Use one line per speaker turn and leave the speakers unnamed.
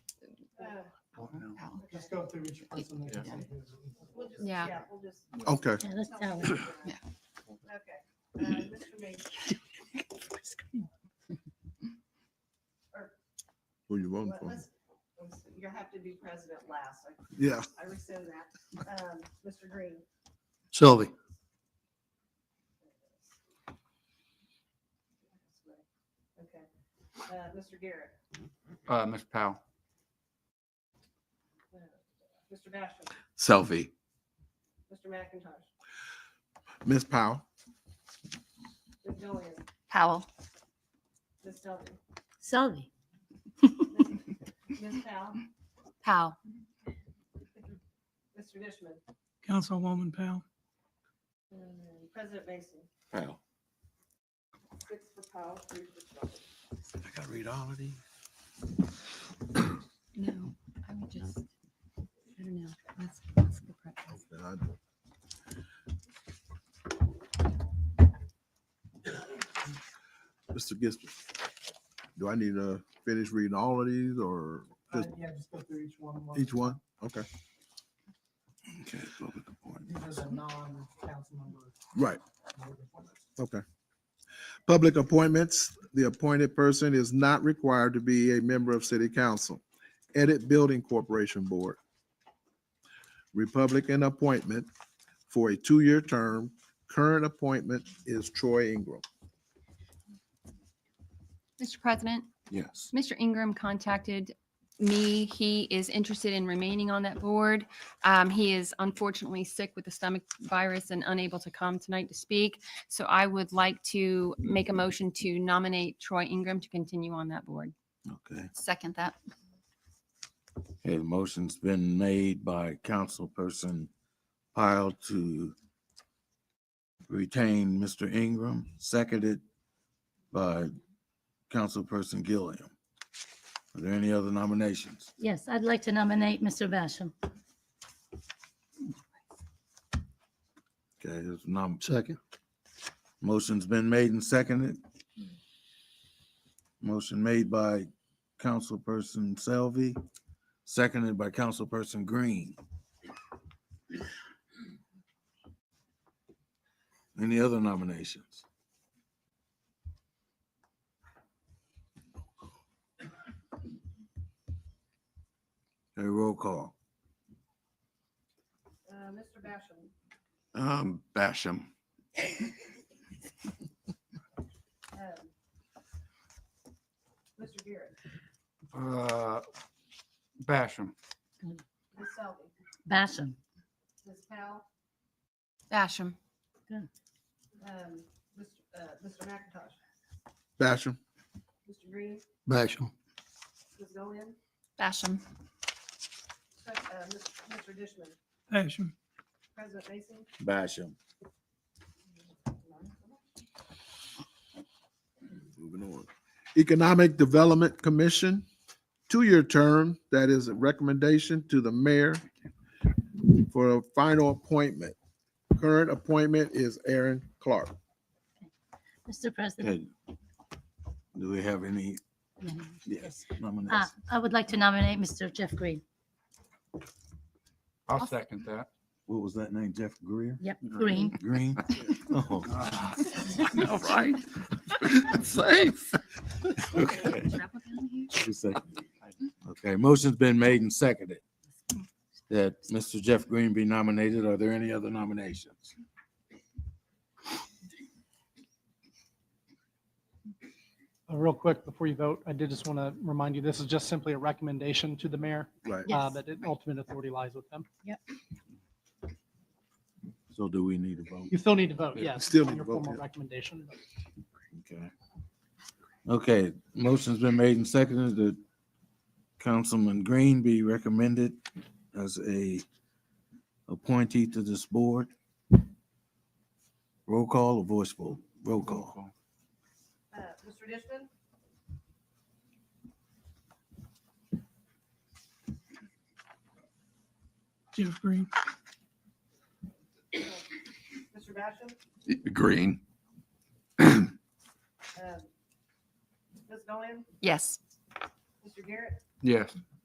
just go through each person. that you see.
We'll just,
Yeah.
yeah, we'll just.
Okay.
Yeah, that's how.
Okay.
Yeah.
Uh, Mr. Major,
Who you voting
let-
for?
let's, let's- you have to be president last. I-
Yeah.
I rescind that. Um, Mr. Green,
Sylvie,
okay. Uh, Mr. Garrett,
Uh, Mr. Powell.
uh, Mr. Basham,
Selfie.
Mr. McIntosh,
Ms. Powell.
Ms. Gillian,
Powell.
Ms. Dudley,
Sylvie,
Ms. Powell,
Powell.
Mr. Dishman,
Councilwoman Powell,
and President Mason.
Powell.
Six for Powell, three for Dudley.
I gotta read all of these.
No, I would just, I don't know. Let's, let's go practice.
Mr. Gibson, do I need to finish reading all of these or
Uh,
just
yeah, just go through each one. one.
each one? Okay. Okay. so we can point.
These are the non-council member.
Right.
board appointments.
Okay. Public appointments, the appointed person is not required to be a member of city council. Edit Building Corporation Board. Republican appointment for a two-year term. Current appointment is Troy Ingram.
Mr. President,
Yes.
Mr. Ingram contacted me. He is interested in remaining on that board. Um, he is unfortunately sick with the stomach virus and unable to come tonight to speak. So I would like to make a motion to nominate Troy Ingram to continue on that board.
Okay.
Second that.
Okay, the motion's been made by councilperson Pyle to retain Mr. Ingram, seconded by councilperson Gilliam. Are there any other nominations?
yes, I'd like to nominate Mr. Basham.
Okay, there's nom,
Second.
motion's been made and seconded. Motion made by councilperson Selvey, seconded by councilperson Green. Any other nominations? A roll call.
Uh, Mr. Basham,
Um, Basham.
um, Mr. Garrett,
Uh, Basham.
Ms. Selby,
Basham,
Ms. Powell,
Basham.
um, Mr. uh, Mr. McIntosh,
Basham,
Mr. Green,
Basham.
Ms. Gillian,
Basham.
Sec- uh, Mr. Mr. Dishman,
Basham,
President Mason,
Basham.
moving on. Economic Development Commission, two-year term, that is a recommendation to the mayor for a final appointment. Current appointment is Aaron Clark.
Mr. President.
Okay. Do we have any
Yes.
nominations?
Ah, I would like to nominate Mr. Jeff Green.
I'll second that.
What was that name? Jeff Greer?
Yep, Green.
Green? Oh,
All right.
Safe. Okay. Two seconds. Okay, motion's been made and seconded that Mr. Jeff Green be nominated. Are there any other nominations?
Uh, Real quick, before you vote, I did just want to remind you, this is just simply a recommendation to the mayor,
Right.
uh,
Yes.
but it- ultimate authority lies with them.
So do we need a vote?
You still need to vote, yes.
Still
on
need to
your
vote,
formal
yeah.
Recommendation.
Okay. Okay, motion's been made and seconded that Councilman Green be recommended as a appointee to this board. Roll call or voice vote? Roll call.
uh, Mr. Dishman,
Jeff Green.
Mr. Basham,
Green.
um, Ms. Gillian,
Yes.
Mr. Garrett,
Yes.